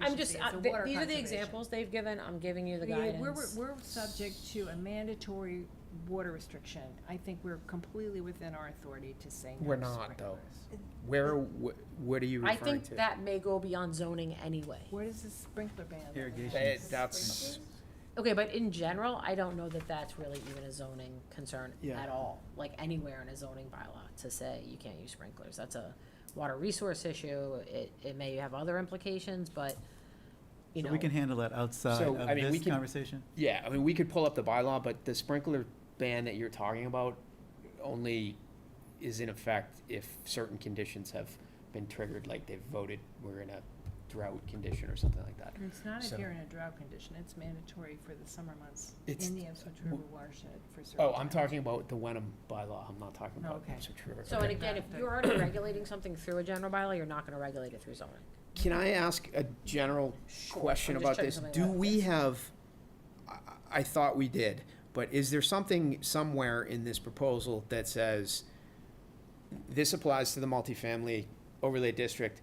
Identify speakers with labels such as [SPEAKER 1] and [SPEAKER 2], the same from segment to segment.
[SPEAKER 1] I'm
[SPEAKER 2] efficiency,
[SPEAKER 1] just,
[SPEAKER 2] it's
[SPEAKER 1] uh,
[SPEAKER 2] a
[SPEAKER 1] th-
[SPEAKER 2] water
[SPEAKER 1] these are the
[SPEAKER 2] conservation.
[SPEAKER 1] examples they've given, I'm giving you the
[SPEAKER 3] Yeah,
[SPEAKER 1] guidance.
[SPEAKER 3] We're, we're subject to a mandatory water restriction. I think we're completely within our authority to say no
[SPEAKER 4] We're
[SPEAKER 3] to
[SPEAKER 4] not, though.
[SPEAKER 3] sprinklers.
[SPEAKER 4] Where, wh- what are you
[SPEAKER 1] I
[SPEAKER 4] referring
[SPEAKER 1] think
[SPEAKER 4] to?
[SPEAKER 1] that may go beyond zoning anyway.
[SPEAKER 3] What is this sprinkler ban? that we have?
[SPEAKER 4] That-
[SPEAKER 5] Irrigation.
[SPEAKER 4] That's,
[SPEAKER 1] Okay, but in general, I don't know that that's really even a zoning concern
[SPEAKER 5] Yeah.
[SPEAKER 1] at all, like anywhere in a zoning bylaw to say you can't use sprinklers. That's a water resource issue. It, it may have other implications, but, you
[SPEAKER 5] So
[SPEAKER 1] know.
[SPEAKER 5] we can handle that outside
[SPEAKER 4] So,
[SPEAKER 5] of
[SPEAKER 4] I mean, we
[SPEAKER 5] this
[SPEAKER 4] can-
[SPEAKER 5] conversation?
[SPEAKER 4] yeah, I mean, we could pull up the bylaw, but the sprinkler ban that you're talking about only is in effect if certain conditions have been triggered, like they've voted, we're in a drought condition or something like that.
[SPEAKER 3] It's not if
[SPEAKER 4] So-
[SPEAKER 3] you're in a drought condition, it's mandatory for the summer months
[SPEAKER 4] It's-
[SPEAKER 3] in the Ipswich River watershed for certain.
[SPEAKER 4] Oh, I'm
[SPEAKER 3] times.
[SPEAKER 4] talking about the Wenham bylaw, I'm not talking about
[SPEAKER 3] Okay.
[SPEAKER 4] Ipswich River.
[SPEAKER 1] So,
[SPEAKER 4] Oh, Okay.
[SPEAKER 1] and again, if you're already regulating something through a general bylaw, you're not gonna regulate it through zoning.
[SPEAKER 4] Can I ask a general question
[SPEAKER 1] I'm just
[SPEAKER 4] about
[SPEAKER 1] checking
[SPEAKER 4] this?
[SPEAKER 1] something
[SPEAKER 4] Do
[SPEAKER 1] about
[SPEAKER 4] we
[SPEAKER 1] this.
[SPEAKER 4] have, I, I thought we did, but is there something somewhere in this proposal that says this applies to the multifamily overlay district,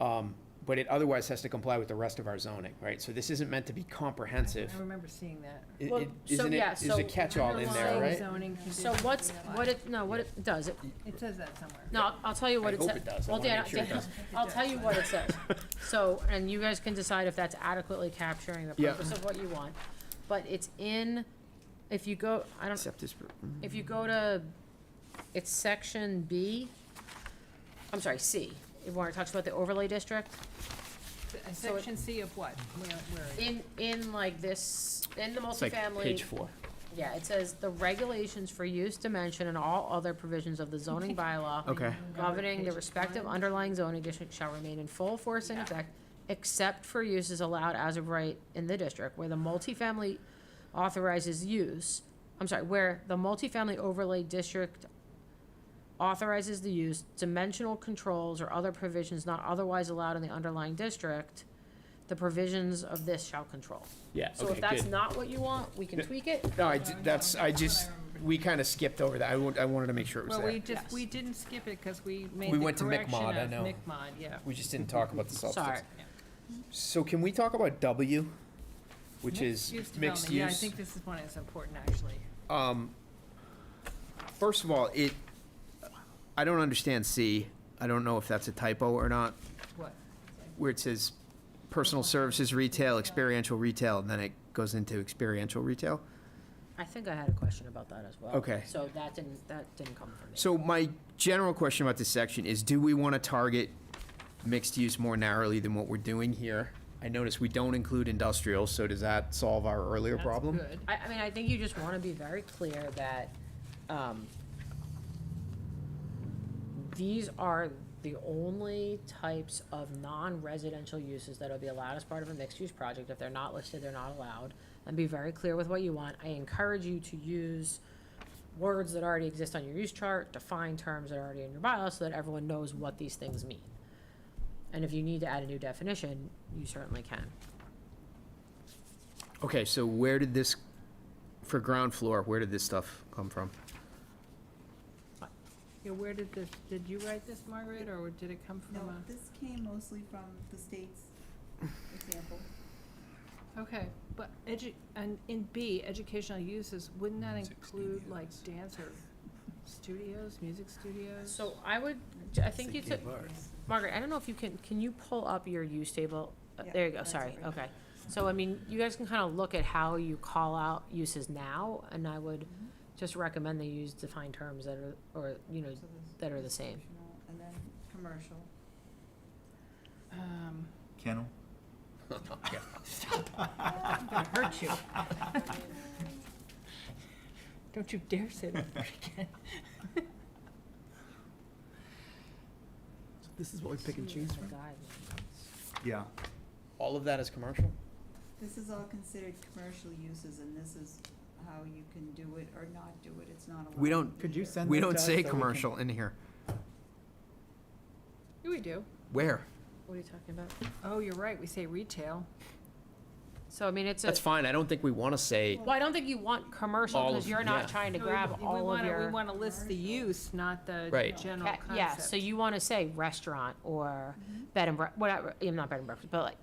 [SPEAKER 4] um, but it otherwise has to comply with the rest of our zoning, right? So this isn't meant to be comprehensive.
[SPEAKER 3] I remember seeing that.
[SPEAKER 4] It-
[SPEAKER 1] Well,
[SPEAKER 4] it-
[SPEAKER 1] so
[SPEAKER 4] Isn't
[SPEAKER 1] yeah,
[SPEAKER 4] it, is
[SPEAKER 1] so
[SPEAKER 4] a catch-all in there,
[SPEAKER 1] underlying
[SPEAKER 4] right?
[SPEAKER 3] Zoning
[SPEAKER 1] So
[SPEAKER 3] conditions
[SPEAKER 1] what's,
[SPEAKER 3] in the
[SPEAKER 1] what
[SPEAKER 3] bylaw.
[SPEAKER 1] it, no, what it does, it,
[SPEAKER 3] It says that somewhere.
[SPEAKER 1] no, I'll- I'll tell you what
[SPEAKER 4] I
[SPEAKER 1] it
[SPEAKER 4] hope
[SPEAKER 1] says.
[SPEAKER 4] it does. I
[SPEAKER 1] Well,
[SPEAKER 4] wanna
[SPEAKER 1] Dan,
[SPEAKER 4] make sure it
[SPEAKER 1] Dan,
[SPEAKER 4] does.
[SPEAKER 1] I'll tell you what it says. So, and you guys can decide if that's adequately capturing the
[SPEAKER 4] Yeah.
[SPEAKER 1] purpose of what you want. But it's in, if you go, I don't,
[SPEAKER 4] Except this, mm,
[SPEAKER 1] if you go to, it's section B, I'm sorry, C, where it talks about the overlay district.
[SPEAKER 3] A
[SPEAKER 1] so it-
[SPEAKER 3] Section C of what? Where, where? is it?
[SPEAKER 1] In, in like this, in the
[SPEAKER 4] it's like
[SPEAKER 1] multifamily,
[SPEAKER 4] page four.
[SPEAKER 1] yeah, it says the regulations for use, dimension, and all other provisions of the zoning bylaw
[SPEAKER 4] Okay,
[SPEAKER 1] governing the
[SPEAKER 3] Page
[SPEAKER 1] respective
[SPEAKER 3] one.
[SPEAKER 1] underlying zoning district shall remain in full force and
[SPEAKER 3] Yeah.
[SPEAKER 1] effect, except for uses allowed as of right in the district where the multifamily authorizes use, I'm sorry, where the multifamily overlay district authorizes the use, dimensional controls or other provisions not otherwise allowed in the underlying district, the provisions of this shall control.
[SPEAKER 4] yeah,
[SPEAKER 1] So
[SPEAKER 4] okay,
[SPEAKER 1] if that's
[SPEAKER 4] good.
[SPEAKER 1] not what you want, we can
[SPEAKER 4] Yeah.
[SPEAKER 1] tweak it.
[SPEAKER 4] No, I, d- that's, I just, we kinda skipped over that. I wa- I wanted to make sure it was
[SPEAKER 3] Well,
[SPEAKER 4] there.
[SPEAKER 3] we
[SPEAKER 1] Yes.
[SPEAKER 3] just, we didn't skip it because we made
[SPEAKER 4] We
[SPEAKER 3] the
[SPEAKER 4] went to
[SPEAKER 3] correction
[SPEAKER 4] McMod, I
[SPEAKER 3] of
[SPEAKER 4] know.
[SPEAKER 3] McMod, yeah.
[SPEAKER 4] We just didn't talk about the substance.
[SPEAKER 1] Sorry.
[SPEAKER 4] So can we talk about W, which is
[SPEAKER 3] Mixed-use
[SPEAKER 4] mixed
[SPEAKER 3] development.
[SPEAKER 4] use?
[SPEAKER 3] Yeah, I think this is one that's important, actually.
[SPEAKER 4] Um, first of all, it, I don't understand C. I don't know if that's a typo or not,
[SPEAKER 3] What?
[SPEAKER 4] where it says personal services retail, experiential retail, and then it goes into experiential retail.
[SPEAKER 1] I think I had a question about that as well.
[SPEAKER 4] Okay.
[SPEAKER 1] So that didn't, that didn't come from me.
[SPEAKER 4] So my general question about this section is, do we want to target mixed use more narrowly than what we're doing here? I notice we don't include industrial, so does that solve our earlier
[SPEAKER 3] That's
[SPEAKER 4] problem?
[SPEAKER 3] good.
[SPEAKER 1] I, I mean, I think you just wanna be very clear that, um, these are the only types of non-residential uses that'll be allowed as part of a mixed-use project. If they're not listed, they're not allowed, and be very clear with what you want. I encourage you to use words that already exist on your use chart, define terms that are already in your bylaw, so that everyone knows what these things mean. And if you need to add a new definition, you certainly can.
[SPEAKER 4] Okay, so where did this, for ground floor, where did this stuff come from?
[SPEAKER 3] Yeah, where did this, did you write this, Margaret, or did it come from
[SPEAKER 6] No,
[SPEAKER 3] a?
[SPEAKER 6] this came mostly from the state's example.
[SPEAKER 3] Okay, but edu, and in B, educational uses, wouldn't that
[SPEAKER 5] Music
[SPEAKER 3] include like
[SPEAKER 5] studios.
[SPEAKER 3] dance or studios, music studios?
[SPEAKER 1] So I would, I think you took, Margaret, I don't know if you can, can you pull up your use table? Uh,
[SPEAKER 6] Yeah,
[SPEAKER 1] There you go,
[SPEAKER 6] that's
[SPEAKER 1] sorry,
[SPEAKER 6] it right
[SPEAKER 1] okay. So, I mean, you guys can kind of look at how you call out uses now, and I would just recommend they use defined terms that are, or, you know,
[SPEAKER 6] So there's
[SPEAKER 1] that are the same.
[SPEAKER 6] institutional And then commercial.
[SPEAKER 3] Um,
[SPEAKER 5] Kennel?
[SPEAKER 3] I'm gonna hurt you. Don't you dare say that word again.
[SPEAKER 5] This is what we pick and
[SPEAKER 1] See
[SPEAKER 5] choose
[SPEAKER 1] the
[SPEAKER 5] from?
[SPEAKER 1] guidelines.
[SPEAKER 5] Yeah.
[SPEAKER 4] All of that is commercial?
[SPEAKER 6] This is all considered commercial uses and this is how you can do it or not do it. It's not allowed.
[SPEAKER 4] We don't-
[SPEAKER 5] Could you
[SPEAKER 6] either.
[SPEAKER 5] send
[SPEAKER 4] We
[SPEAKER 5] that to
[SPEAKER 4] don't
[SPEAKER 5] us
[SPEAKER 4] say
[SPEAKER 5] so we can-
[SPEAKER 4] commercial in here.
[SPEAKER 3] Yeah, we do.
[SPEAKER 4] Where?
[SPEAKER 1] What are you talking about?
[SPEAKER 3] Oh, you're right, we say retail.
[SPEAKER 1] So, I mean, it's a,
[SPEAKER 4] That's fine, I don't think we want to say,
[SPEAKER 1] well, I don't think you want commercial,
[SPEAKER 4] All
[SPEAKER 1] because
[SPEAKER 4] of-
[SPEAKER 1] you're
[SPEAKER 4] yeah.
[SPEAKER 1] not trying to
[SPEAKER 3] No, we-
[SPEAKER 1] grab
[SPEAKER 3] we
[SPEAKER 1] all of
[SPEAKER 3] wanna-
[SPEAKER 1] your.
[SPEAKER 3] We wanna list the use, not the
[SPEAKER 4] Right.
[SPEAKER 3] general
[SPEAKER 1] Ca-
[SPEAKER 3] concept.
[SPEAKER 1] Mm-hmm. Yeah, so you wanna say restaurant, or bed and bre- whatever, yeah, not bed and breakfast, but like,